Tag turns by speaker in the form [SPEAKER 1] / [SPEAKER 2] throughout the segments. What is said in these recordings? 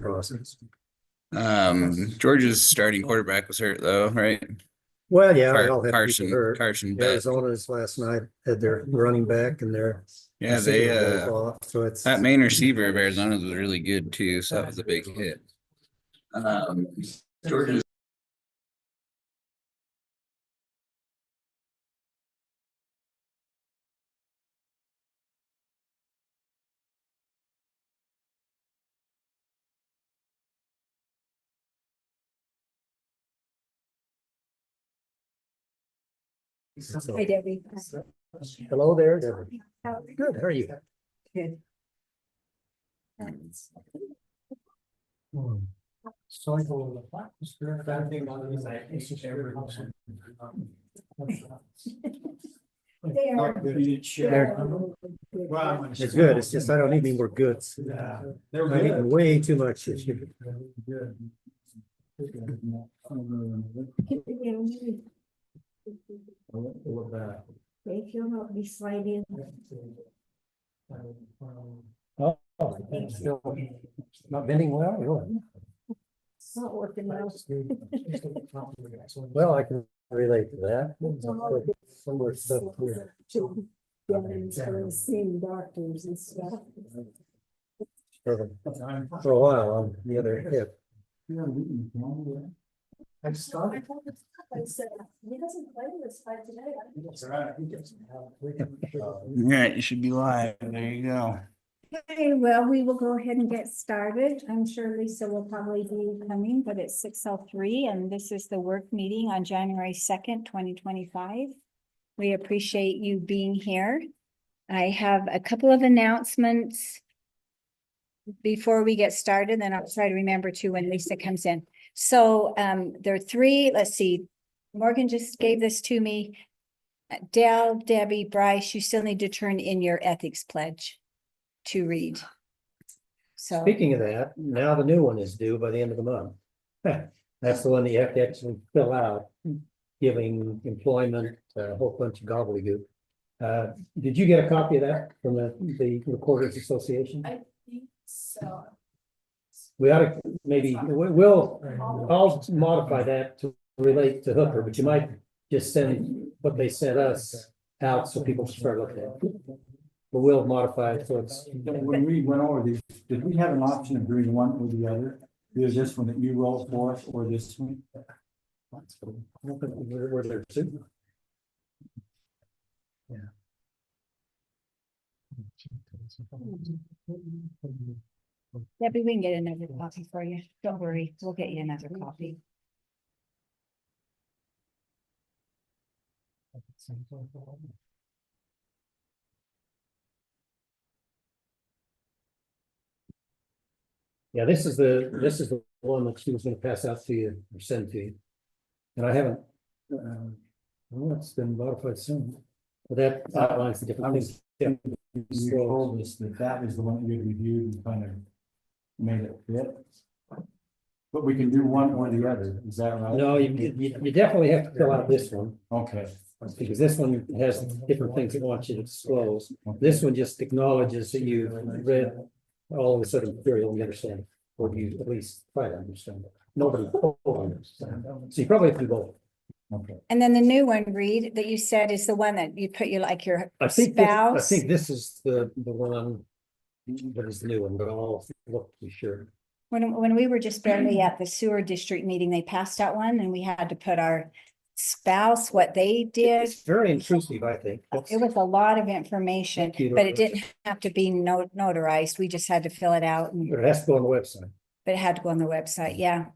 [SPEAKER 1] process.
[SPEAKER 2] Um, Georgia's starting quarterback was hurt though, right?
[SPEAKER 1] Well, yeah,
[SPEAKER 2] Car-
[SPEAKER 1] they all have people
[SPEAKER 2] Carson,
[SPEAKER 1] hurt.
[SPEAKER 2] Carson Beck.
[SPEAKER 1] Arizona's last night had their running back and their.
[SPEAKER 2] Yeah, they,
[SPEAKER 1] receiver goes
[SPEAKER 2] uh,
[SPEAKER 1] off, So it's,
[SPEAKER 2] that main receiver of Arizona's was really good too, so that was a big hit. Um, Georgia's
[SPEAKER 1] so-
[SPEAKER 3] Hi Debbie.
[SPEAKER 1] hello there, Deborah.
[SPEAKER 3] How-
[SPEAKER 1] Good, how are you?
[SPEAKER 3] Good.
[SPEAKER 4] So I go with the black. spirit, that thing on it is like, it's just every house.
[SPEAKER 3] There.
[SPEAKER 4] Not good.
[SPEAKER 1] There.
[SPEAKER 4] Well, I'm gonna-
[SPEAKER 1] It's good. It's just I don't need any more goods.
[SPEAKER 4] Yeah.
[SPEAKER 1] I'm
[SPEAKER 4] They're
[SPEAKER 1] eating
[SPEAKER 4] good.
[SPEAKER 1] way too much this year.
[SPEAKER 4] Good.
[SPEAKER 3] Get it down.
[SPEAKER 4] I went to look back.
[SPEAKER 3] If you'll help me slide in.
[SPEAKER 1] Oh, it's still not bending well, really.
[SPEAKER 3] It's not working well.
[SPEAKER 1] Well, I can relate to that.
[SPEAKER 3] It's all the
[SPEAKER 1] Somewhere stuff here.
[SPEAKER 3] children, yeah, and so Seeing doctors and stuff.
[SPEAKER 1] For the- for a while on the other hip.
[SPEAKER 4] I just started.
[SPEAKER 3] I said, He doesn't play this fight today. I
[SPEAKER 4] That's right.
[SPEAKER 1] Uh,
[SPEAKER 4] Well,
[SPEAKER 2] Yeah, you should be live. There you go.
[SPEAKER 3] Okay, well, we will go ahead and get started. I'm sure Lisa will probably be coming, but it's six oh three and this is the work meeting on January second, twenty twenty-five. We appreciate you being here. I have a couple of announcements. Before we get started, then I'll try to remember to when Lisa comes in. So um, there are three, let's see, Morgan just gave this to me. Uh, Dell, Debbie, Bryce, you still need to turn in your ethics pledge to read. So,
[SPEAKER 1] Speaking of that, now the new one is due by the end of the month. That's the one that you have to actually fill out, giving employment, a whole bunch of gobbledygook. Uh, did you get a copy of that from the, the Recorders Association?
[SPEAKER 5] I think so.
[SPEAKER 1] We ought to, maybe, we- we'll, I'll modify that to relate to Hooker, but you might just send what they sent us out so people can start looking at it. But we'll modify it so it's,
[SPEAKER 4] When we went over these, did we have an option of doing one or the other? Is this one that you roll for us or this one?
[SPEAKER 1] we're, we're there too.
[SPEAKER 3] Debbie, we can get another copy for you. Don't worry, we'll get you another copy.
[SPEAKER 1] Yeah, this is the, this is the one that she was gonna pass out to you or send to you. And I haven't, um, well, it's been modified soon. But that outlines the different things.
[SPEAKER 4] You told us that that is the one that you reviewed and kind of made it fit. But we can do one or the other, is that right?
[SPEAKER 1] No, you, you, you definitely have to fill out this one.
[SPEAKER 4] Okay,
[SPEAKER 1] Because this one has different things it wants you to disclose. This one just acknowledges that you read all of the sort of material and you understand, or you at least try to understand. it. Nobody fully understands. So you probably have to go,
[SPEAKER 4] okay.
[SPEAKER 3] And then the new one, Reed, that you said is the one that you put you like your
[SPEAKER 1] I think, this- I
[SPEAKER 3] spouse.
[SPEAKER 1] think this is the, the one. That is the new one, but I'll look to be sure.
[SPEAKER 3] When, when we were just barely at the sewer district meeting, they passed out one and we had to put our spouse, what they did.
[SPEAKER 1] It's very intrusive, I think.
[SPEAKER 3] It was a lot of information,
[SPEAKER 1] Thank you.
[SPEAKER 3] but it didn't have to be no- notarized. We just had to fill it out and
[SPEAKER 1] But it has to go on the website.
[SPEAKER 3] but it had to go on the website. Yeah.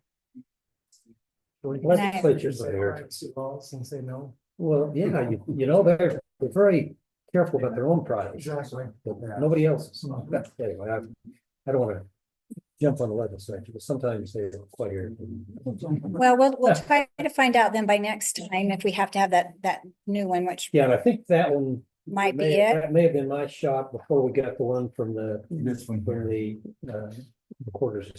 [SPEAKER 1] Legislature's there.
[SPEAKER 4] Since they know.
[SPEAKER 1] Well, yeah, you, you know, they're, they're very careful about their own products,
[SPEAKER 4] Exactly.
[SPEAKER 1] but nobody else's. But Anyway, I, I don't wanna jump on the legislature, but sometimes they require.
[SPEAKER 3] Well, we'll, we'll try to find out then by next time if we have to have that, that new one, which
[SPEAKER 1] Yeah, and I think that one.
[SPEAKER 3] might
[SPEAKER 1] may-
[SPEAKER 3] be it.
[SPEAKER 1] That may have been my shot before we got the one from the,
[SPEAKER 4] This one here.
[SPEAKER 1] from the, uh, quarters